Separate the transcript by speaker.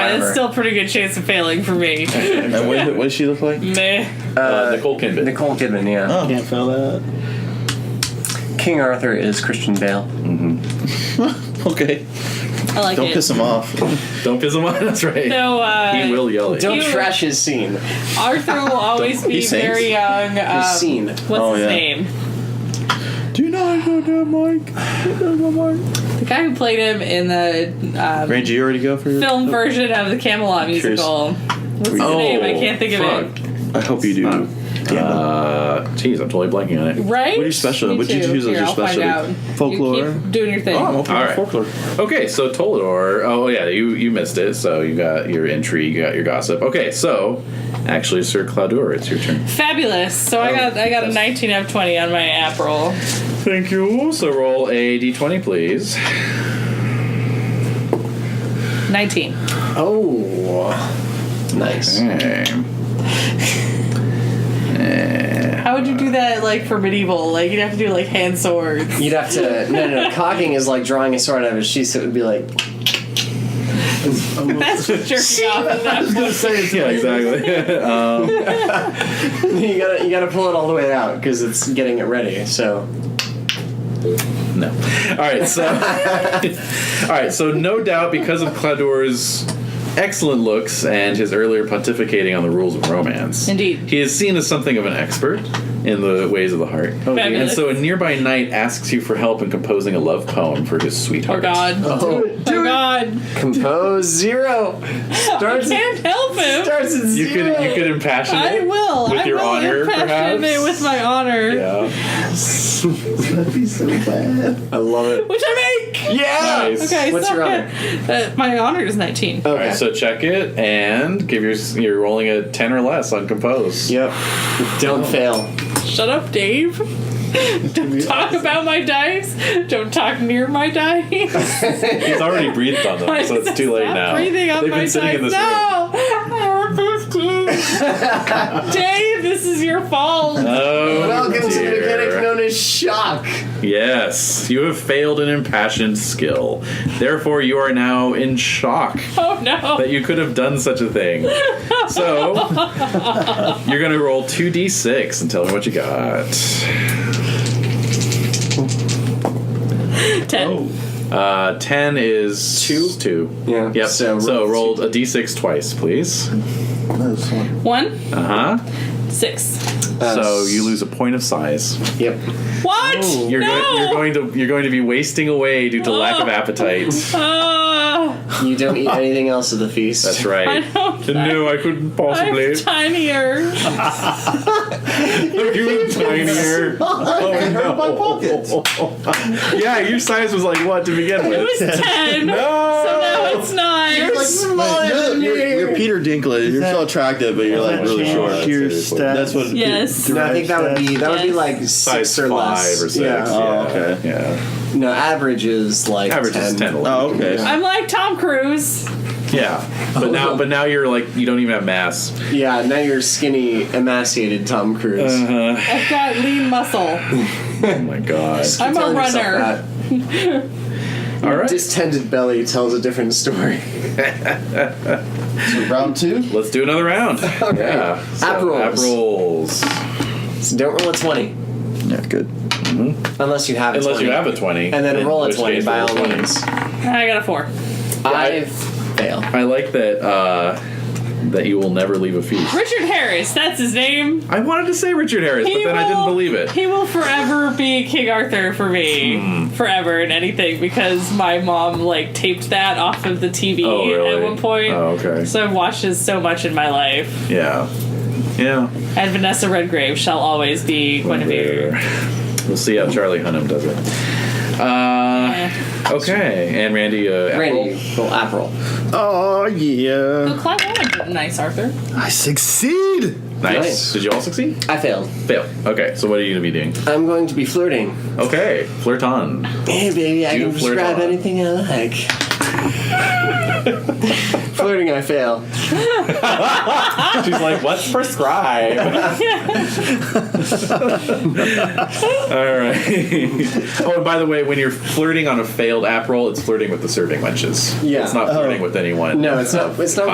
Speaker 1: It's
Speaker 2: Armor.
Speaker 1: still a pretty good chance of failing for me.
Speaker 3: And what, what does she look like?
Speaker 1: Meh.
Speaker 2: Uh, Nicole Kidman.
Speaker 4: Nicole Kidman, yeah.
Speaker 3: Oh.
Speaker 5: Can't fail that.
Speaker 4: King Arthur is Christian Bale.
Speaker 3: Okay.
Speaker 1: I like
Speaker 3: Don't
Speaker 1: it.
Speaker 3: piss him off.
Speaker 2: Don't piss him off. That's right.
Speaker 1: so, uh,
Speaker 2: He will yell at you.
Speaker 4: Don't
Speaker 1: You-
Speaker 4: trash his scene. His
Speaker 1: Arthur will always be
Speaker 3: He sings?
Speaker 1: very young. Um,
Speaker 4: scene.
Speaker 1: What's
Speaker 3: Oh,
Speaker 1: his
Speaker 3: yeah.
Speaker 1: name?
Speaker 3: Do not go down, Mike. Don't go down, Mike.
Speaker 1: The guy who played him in the um,
Speaker 3: Randy, you already go for your
Speaker 1: film version of the Camelot
Speaker 3: Cheers.
Speaker 1: musical. What's his
Speaker 2: Oh,
Speaker 1: name? I can't think of
Speaker 2: fuck.
Speaker 1: it.
Speaker 3: I hope you do.
Speaker 2: Huh.
Speaker 3: Damn it.
Speaker 2: Uh, jeez, I'm totally blanking on it.
Speaker 1: Right?
Speaker 3: What are your special-
Speaker 1: Me
Speaker 3: what did you
Speaker 1: too.
Speaker 3: choose as
Speaker 1: Here,
Speaker 3: your
Speaker 1: I'll find
Speaker 3: specialty?
Speaker 1: out. You
Speaker 3: Folklore?
Speaker 1: keep doing your thing.
Speaker 3: Oh, I'm open
Speaker 2: All
Speaker 3: to
Speaker 2: right.
Speaker 3: folklore.
Speaker 2: Okay, so Tolador. Oh yeah, you you missed it. So you got your intrigue, you got your gossip. Okay, so actually, Sir Claudur, it's your turn.
Speaker 1: Fabulous. So I
Speaker 2: Oh,
Speaker 1: got I got a
Speaker 2: that's-
Speaker 1: 19 out of 20 on my app roll.
Speaker 2: Thank you. So roll a d20, please.
Speaker 1: 19.
Speaker 5: Oh.
Speaker 4: Nice.
Speaker 2: Okay.
Speaker 1: How would you do that like for medieval? Like you'd have to do like hand swords.
Speaker 4: You'd have to. No, no, no. Cocking is like drawing a sword out of a sheath, so it would be like.
Speaker 1: That's just jerking off at that point.
Speaker 2: yeah, exactly.
Speaker 4: You gotta, you gotta pull it all the way out because it's getting it ready. So
Speaker 2: no. All right, so all right, so no doubt because of Claudur's excellent looks and his earlier pontificating on the rules of romance,
Speaker 1: Indeed.
Speaker 2: he is seen as something of an expert in the ways of the heart. And
Speaker 1: Fabulous.
Speaker 2: so a nearby knight asks you for help in composing a love poem for his
Speaker 1: Oh
Speaker 2: sweetheart.
Speaker 1: god.
Speaker 4: Do it,
Speaker 1: oh god.
Speaker 4: compose zero.
Speaker 1: I
Speaker 4: Starts,
Speaker 1: can't help him.
Speaker 4: starts at
Speaker 2: You could
Speaker 4: zero.
Speaker 2: you could impassion
Speaker 1: I
Speaker 2: it.
Speaker 1: will.
Speaker 2: With
Speaker 1: I
Speaker 2: your
Speaker 1: will
Speaker 2: honor,
Speaker 1: impassion
Speaker 2: perhaps?
Speaker 1: it with my honor.
Speaker 2: Yeah.
Speaker 5: That'd be so bad.
Speaker 4: I love it.
Speaker 1: Which I make.
Speaker 4: Yeah.
Speaker 2: Nice.
Speaker 1: Ah, Okay,
Speaker 4: What's
Speaker 1: so
Speaker 4: your honor?
Speaker 1: Uh, my honor is 19.
Speaker 2: All right, so check it and give your you're rolling a ten or less on compose.
Speaker 4: Yep. Don't fail.
Speaker 1: Shut up, Dave. Don't talk about my dice. Don't talk near my dice.
Speaker 2: He's already breathed on them, so it's too late
Speaker 1: Stop
Speaker 2: now.
Speaker 1: breathing on
Speaker 2: They've
Speaker 1: my
Speaker 2: been sitting
Speaker 1: dice.
Speaker 2: in this room.
Speaker 1: no. Dave, this is your fault.
Speaker 2: Oh,
Speaker 4: Welcome to the
Speaker 2: dear.
Speaker 4: mechanic known as shock.
Speaker 2: Yes, you have failed an impassioned skill. Therefore, you are now in shock
Speaker 1: oh no.
Speaker 2: that you could have done such a thing. So, you're going to roll 2d6 and tell me what you got.
Speaker 1: 10.
Speaker 2: Uh, 10 is.
Speaker 4: Two?
Speaker 2: 2.
Speaker 4: Yeah,
Speaker 2: Yep.
Speaker 4: so
Speaker 2: So,
Speaker 4: roll
Speaker 2: rolled a d6 twice, please.
Speaker 5: That's one.
Speaker 1: 1,
Speaker 2: Uh huh.
Speaker 1: 6.
Speaker 4: Uh,
Speaker 2: so, you lose a point of size.
Speaker 4: Yep.
Speaker 1: What?
Speaker 2: Oh, You're,
Speaker 1: no.
Speaker 2: go- you're going to you're going to be wasting away due to lack of
Speaker 1: Oh.
Speaker 2: appetite.
Speaker 1: Ah,
Speaker 4: You don't eat anything else at the feast.
Speaker 2: That's
Speaker 1: I
Speaker 2: right.
Speaker 1: don't
Speaker 2: No, I couldn't
Speaker 1: I'm
Speaker 2: possibly.
Speaker 1: tinier.
Speaker 2: you tinier. Oh,
Speaker 5: hurt my pocket.
Speaker 2: yeah, your size was like what to begin
Speaker 1: It
Speaker 2: with? Ah!
Speaker 1: was 10. So now it's 9.
Speaker 3: You're, you're- you're Peter Dinklage. You're so attractive, but you're like really
Speaker 2: change
Speaker 3: short.
Speaker 5: Your
Speaker 2: seriously.
Speaker 5: stats.
Speaker 3: That's what.
Speaker 1: yes.
Speaker 5: You're
Speaker 4: No, I think that would be that would be
Speaker 1: Yes.
Speaker 4: like six
Speaker 2: Size
Speaker 4: or
Speaker 2: five
Speaker 4: less.
Speaker 2: or six.
Speaker 4: Yeah.
Speaker 3: Oh, okay.
Speaker 2: Yeah.
Speaker 4: No, average is like
Speaker 2: Average
Speaker 4: 10.
Speaker 2: is ten.
Speaker 3: Oh, okay.
Speaker 1: I'm like Tom Cruise.
Speaker 2: Yeah.
Speaker 4: Oh.
Speaker 2: But now, but now you're like you don't even have mass.
Speaker 4: Yeah, now you're skinny, emaciated Tom Cruise.
Speaker 2: Uh-huh.
Speaker 1: I've got lean muscle.
Speaker 2: Oh my god.
Speaker 4: Just keep
Speaker 1: I'm a
Speaker 4: telling yourself
Speaker 1: runner.
Speaker 4: that.
Speaker 2: All right.
Speaker 4: Distended belly tells a different story.
Speaker 5: So round two.
Speaker 2: Let's do another round. Yeah.
Speaker 4: App rolls.
Speaker 2: App rolls.
Speaker 4: So don't roll a twenty
Speaker 3: Yeah, good.
Speaker 4: unless you have a
Speaker 2: Unless
Speaker 4: 20.
Speaker 2: you have a twenty.
Speaker 4: and then
Speaker 2: in
Speaker 4: roll a
Speaker 2: which
Speaker 4: twenty
Speaker 2: case
Speaker 4: by
Speaker 2: roll
Speaker 4: all
Speaker 2: 20.
Speaker 4: means.
Speaker 1: I got a 4.
Speaker 4: I
Speaker 2: I-
Speaker 4: fail.
Speaker 2: I like that. uh That you will never leave a feast.
Speaker 1: Richard Harris, that's his name.
Speaker 2: I wanted to say Richard Harris, but then I didn't believe it. Hmm.
Speaker 1: He will forever be King Arthur for me. Forever and anything because my mom like taped that off of the TV
Speaker 2: Oh, really?
Speaker 1: at one point.
Speaker 2: Oh, okay.
Speaker 1: So I've watched this so much in my life.
Speaker 2: Yeah. Yeah.
Speaker 1: And Vanessa Redgrave shall always be Guinevere.
Speaker 2: We'll see how Charlie Hunnam does it. Uh,
Speaker 1: Eh.
Speaker 2: okay, and Randy. Uh,
Speaker 4: Randy, roll app roll.
Speaker 5: Oh yeah.
Speaker 1: So Clive Owen did nice, Arthur.
Speaker 5: I succeed.
Speaker 2: Apple. Nice.
Speaker 4: Nice.
Speaker 2: Did you all succeed?
Speaker 4: I failed.
Speaker 2: Fail. Okay, so what are you gonna be doing?
Speaker 4: I'm going to be flirting.
Speaker 2: Okay, flirt on.
Speaker 4: Hey, baby, I
Speaker 2: You
Speaker 4: can
Speaker 2: flirt
Speaker 4: prescribe
Speaker 2: on.
Speaker 4: anything I like. Flirting, I fail.
Speaker 2: She's like, let's prescribe. All right. oh, and by the way, when you're flirting on a failed app roll, it's flirting with the serving wenches.
Speaker 4: Yeah.
Speaker 2: It's not flirting with anyone.
Speaker 4: No, it's not. It's not